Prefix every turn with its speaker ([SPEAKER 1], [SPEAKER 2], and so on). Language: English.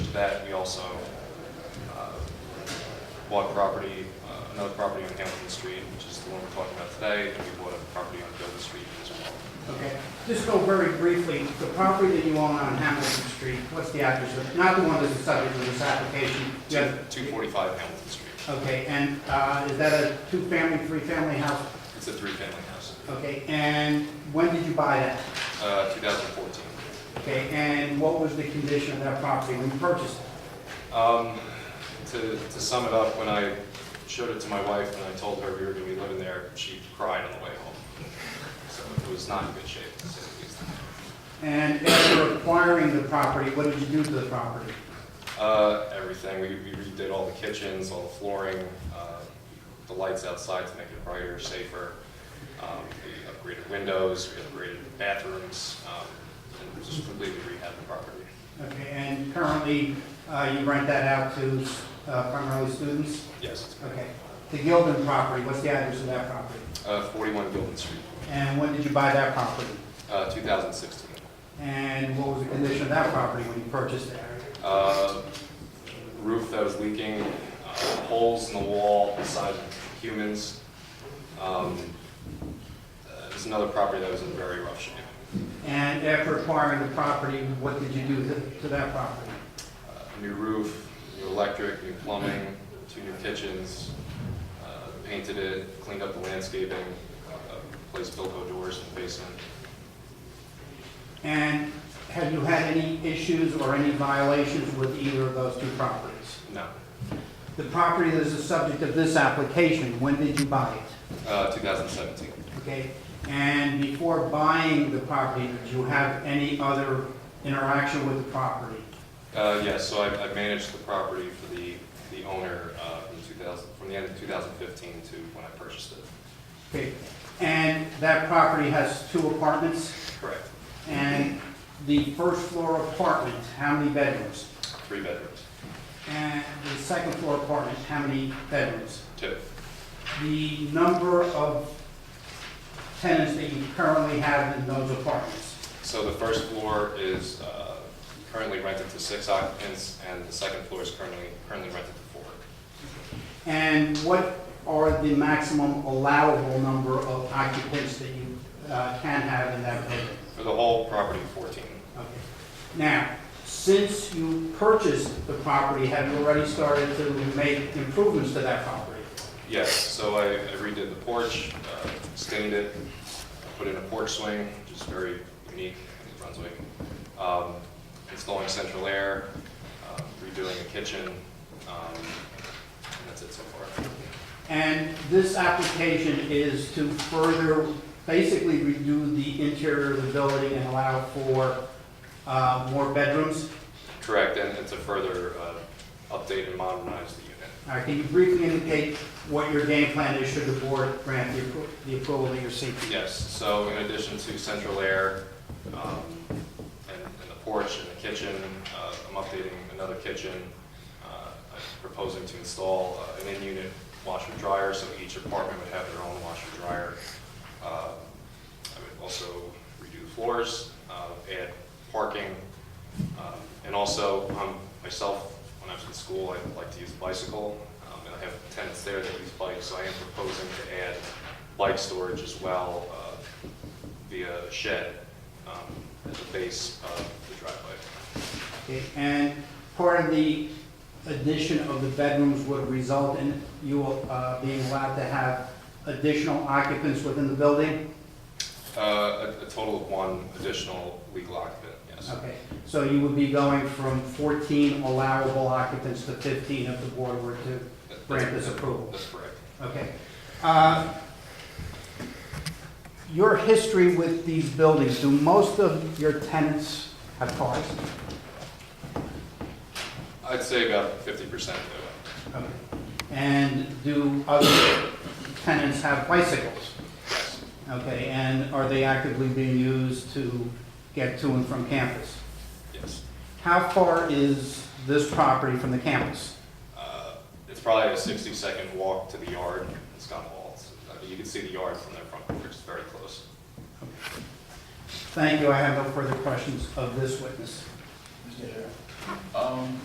[SPEAKER 1] that, we also uh, bought property, uh, another property on Hamilton Street, which is the one we're talking about today, and we bought a property on Gilbert Street as well.
[SPEAKER 2] Okay, just go very briefly, the property that you own on Hamilton Street, what's the address of, not the one that's the subject of this application? you have-
[SPEAKER 1] 245 Hamilton Street.
[SPEAKER 2] Okay, and uh, is that a two-family, three-family house?
[SPEAKER 1] It's a three-family house,
[SPEAKER 2] Okay, and when did you buy that?
[SPEAKER 1] Uh, 2014.
[SPEAKER 2] Okay, and what was the condition of that property when you purchased it?
[SPEAKER 1] Um, To to sum it up, when I showed it to my wife and I told her we were going to be living there, she cried on the way home. So it was not in good shape, to say the least.
[SPEAKER 2] And after acquiring the property, what did you do to the property?
[SPEAKER 1] Uh, Everything, we we redid all the kitchens, all the flooring, uh, the lights outside to make it brighter, safer. Um, We upgraded windows, we upgraded bathrooms, um, and just completely rehabbed the property.
[SPEAKER 2] Okay, and currently, uh, you rent that out to uh, primarily students?
[SPEAKER 1] Yes, it's
[SPEAKER 2] Okay. The Gilden property, what's the address of that property?
[SPEAKER 1] uh, 41 Gilman Street,
[SPEAKER 2] And when did you buy that property?
[SPEAKER 1] uh, 2016.
[SPEAKER 2] And what was the condition of that property when you purchased it?
[SPEAKER 1] uh, roof that was leaking, uh, holes in the wall the size of humans. Um, uh, There's another property that was in very rough shape.
[SPEAKER 2] And after acquiring the property, what did you do to- to that property?
[SPEAKER 1] Uh, New roof, new electric, new plumbing, two new kitchens, uh, painted it, cleaned up the landscaping, uh, replaced Bilko doors in the basement.
[SPEAKER 2] And have you had any issues or any violations with either of those two properties?
[SPEAKER 1] No,
[SPEAKER 2] The property that is the subject of this application, when did you buy it?
[SPEAKER 1] Uh, 2017.
[SPEAKER 2] Okay, and before buying the property, did you have any other interaction with the property?
[SPEAKER 1] Uh, Yes, so I I managed the property for the the owner uh, from 2000 from the end of 2015 to when I purchased it.
[SPEAKER 2] Okay, and that property has two apartments,
[SPEAKER 1] Correct.
[SPEAKER 2] and the first floor apartment, how many bedrooms?
[SPEAKER 1] Three bedrooms.
[SPEAKER 2] And the second floor apartment, how many bedrooms?
[SPEAKER 1] Two.
[SPEAKER 2] The number of tenants that you currently have in those apartments?
[SPEAKER 1] So the first floor is uh, currently rented to six occupants, and the second floor is currently, currently rented to four.
[SPEAKER 2] And what are the maximum allowable number of occupants that you uh, can have in that building?
[SPEAKER 1] For the whole property, 14.
[SPEAKER 2] Okay. Now, since you purchased the property, have you already started to make improvements to that property?
[SPEAKER 1] Yes, so I I redid the porch, uh, stained it, put in a porch swing, which is very unique in New Brunswick, um, installing central air, um, redoing the kitchen, um, and that's it so far.
[SPEAKER 2] And this application is to further, basically redo the interior of the building and allow for uh, more bedrooms?
[SPEAKER 1] Correct, and and to further uh, update and modernize the unit.
[SPEAKER 2] All right, can you briefly indicate what your game plan is should the board grant the appro- the approval that you're seeking?
[SPEAKER 1] Yes, so in addition to central air, um, and and the porch and the kitchen, uh, I'm updating another kitchen. Uh, I'm proposing to install uh, an in-unit washer dryer, so each apartment would have their own washer dryer. Uh, I would also redo the floors, uh, add parking, um, and also, um, myself, when I was in school, I like to use a bicycle, um, and I have tenants there that use bikes, so I am proposing to add bike storage as well uh, via shed um, as a base of the driveway.
[SPEAKER 2] Okay, And part of the addition of the bedrooms would result in you uh, being allowed to have additional occupants within the building?
[SPEAKER 1] Uh, A a total of one additional legal occupant, yes.
[SPEAKER 2] Okay, so you would be going from 14 allowable occupants to 15 if the board were to
[SPEAKER 1] That-
[SPEAKER 2] grant
[SPEAKER 1] that's-
[SPEAKER 2] this approval?
[SPEAKER 1] That's correct.
[SPEAKER 2] Okay. Uh, Your history with these buildings, do most of your tenants have cars?
[SPEAKER 1] I'd say about 50% do.
[SPEAKER 2] Okay. And do other tenants have bicycles?
[SPEAKER 1] Yes.
[SPEAKER 2] Okay, and are they actively being used to get to and from campus?
[SPEAKER 1] Yes.
[SPEAKER 2] How far is this property from the campus?
[SPEAKER 1] Uh, It's probably a 60-second walk to the yard. It's got walls. I mean, You can see the yard from their front porch. It's very close.
[SPEAKER 2] Thank you, I have no further questions of this witness.
[SPEAKER 3] Mr. Chair. Um,